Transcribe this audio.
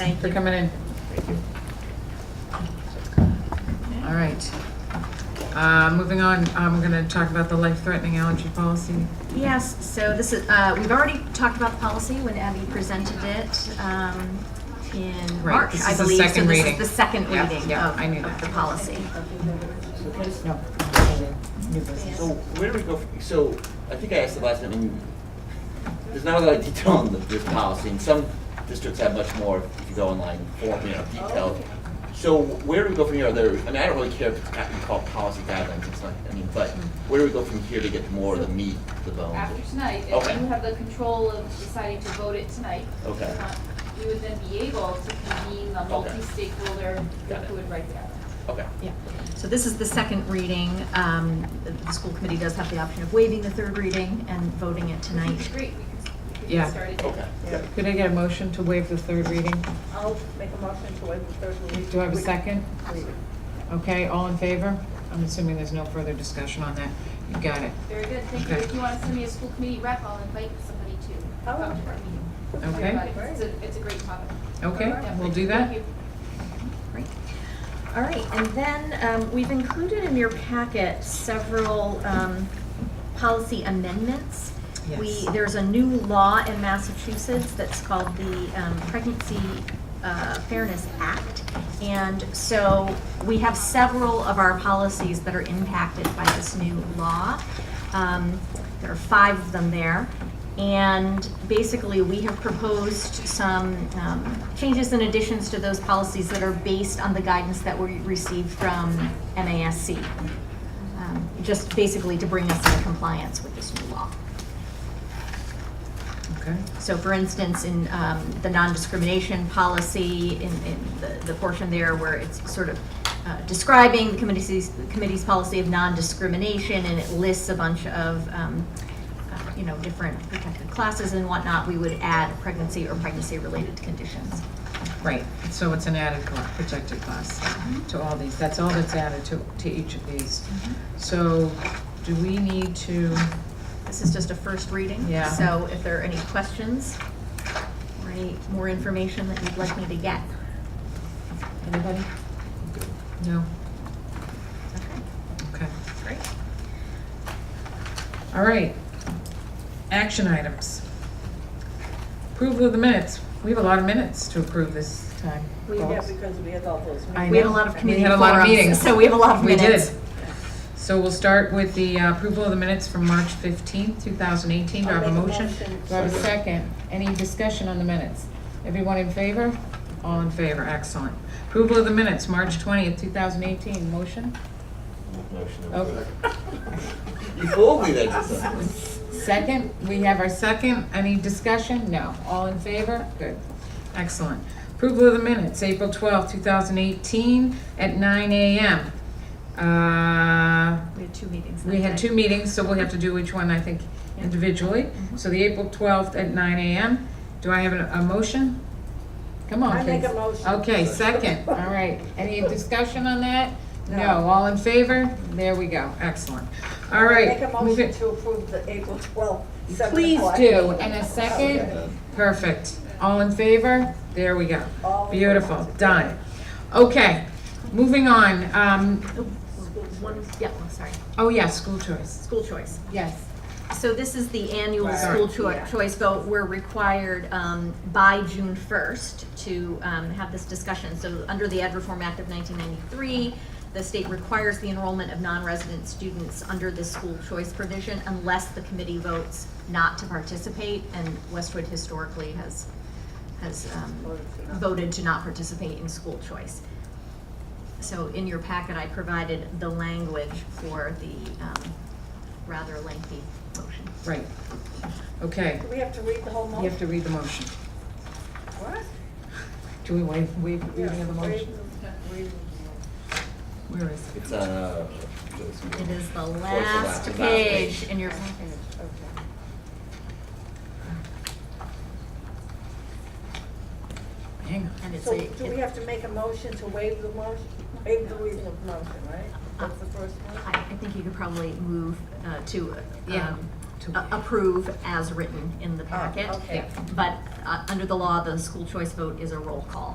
Thank for you. coming in. All right. Uh, Moving on, um, we're going to talk about the life-threatening allergy policy. Yes, so this is, uh, we've already talked about the policy when Abby presented it um, in Right, March, this I is the believe. second reading. So this is the second Yeah, reading yeah, I knew of- of that. the policy. No. New business. Yeah. So where do we go, f- so I think I asked the last time, I mean, there's not a lot of detail on the- this policy, and some districts have much more if you go online, for, you know, detailed. So where do we go from here? Are there, I mean, I don't really care if it's got- we call it policy guidelines, it's not, I mean, but where do we go from here to get more of the meat, the after bones? tonight, if Okay. you have the control of deciding to vote it tonight. Okay. uh, You would then be able to convene the multi-stakeholder Got it. group who would write the guidelines. Okay. Yeah, so this is the second reading. Um, The the school committee does have the option of waiving the third reading and voting it tonight. Great, we can, we can Yeah. get started. Okay. Could I get a motion to waive the third reading? I'll make a motion to waive the third reading. Do I have a second? Okay, all in favor? I'm assuming there's no further discussion on that. You got it. Very good, thank you. Okay. If you want to send me a school committee rep, I'll invite somebody to Oh. come to our meeting. Don't worry Okay. about it. It's a, it's a great topic. Okay, Yeah, we'll do Thank that. you. Great. All right, and then um, we've included in your packet several um, policy amendments. We, Yes. there's a new law in Massachusetts that's called the um, Pregnancy uh, Fairness Act. And so we have several of our policies that are impacted by this new law. Um, There are five of them there. And basically, we have proposed some um, changes and additions to those policies that are based on the guidance that we received from MASC. um, Just basically to bring us into compliance with this new law. Okay. So for instance, in um, the non-discrimination policy, in in the- the portion there where it's sort of uh, describing the committee's, the committee's policy of non-discrimination, and it lists a bunch of, um, uh, you know, different protected classes and whatnot, we would add pregnancy or pregnancy-related conditions. Right, so it's an added cla- protected class to all these, that's all that's added to, to each of these. So do we need to, This is just a first reading. Yeah. So if there are any questions or any more information that you'd like me to get. anybody? No? Okay. Okay. Great. All right. Action items. Approval of the minutes. We have a lot of minutes to approve this time. We folks. did because we had all those. I We had a know. lot of We community had a lot of forums, meetings. so we have a lot of We did. minutes. So we'll start with the uh, approval of the minutes from March 15th, 2018. Do I I'll have a make a motion? motion. Do I have a second? Any discussion on the minutes? Everyone in favor? All in favor, excellent. Approval of the minutes, March 20th, 2018. Motion? Oh. Motion to Okay. approve. You fooled me there, Giselle. Second, we have our second. Any discussion? No. All in favor? Good. Excellent. Approval of the minutes, April 12th, 2018, at 9 a.m. Uh, We had two meetings. We that had day. two meetings, so we'll have to do each one, I think, individually. Mm-hmm. So the April 12th at 9 a.m. Do I have a a motion? Come on, I make please. a motion. Okay, second, all right. Any discussion on that? No, No. all in favor? There we go, excellent. All right. Make a move motion it- to approve the April 12th, 7 Please o'clock. do, and a second, perfect. All in favor? There we go. All in Beautiful, favor. done. Okay, moving on. Um, Oh, One, yeah, one, sorry, oh yeah, school choice, school choice. yes. So this is the annual Right. school Sorry. choi- Yeah. choice vote. We're required um, by June 1st to um, have this discussion. So under the Ed Reform Act of 1993, the state requires the enrollment of non-resident students under this school choice provision unless the committee votes not to participate. And Westwood historically has, has um, voted to not participate in school choice. So in your packet, I provided the language for the um, rather lengthy motion. Right. Okay, Do we have to read the whole you have motion? to read the motion. What? Do we waive, waive Yeah, reading of the read motion? the- read the- Where is it? It's, uh. It is the Towards last the last page page. in your packet. Okay. Hang on. And it's So a, do we it- have to make a motion to waive the motion, waive the reading of the motion, right? That's the first one? I, I think you could probably move uh, to, Yeah. um, To- a- approve as written in the packet. Oh, okay. But, uh, under the law, the school choice vote is a roll call.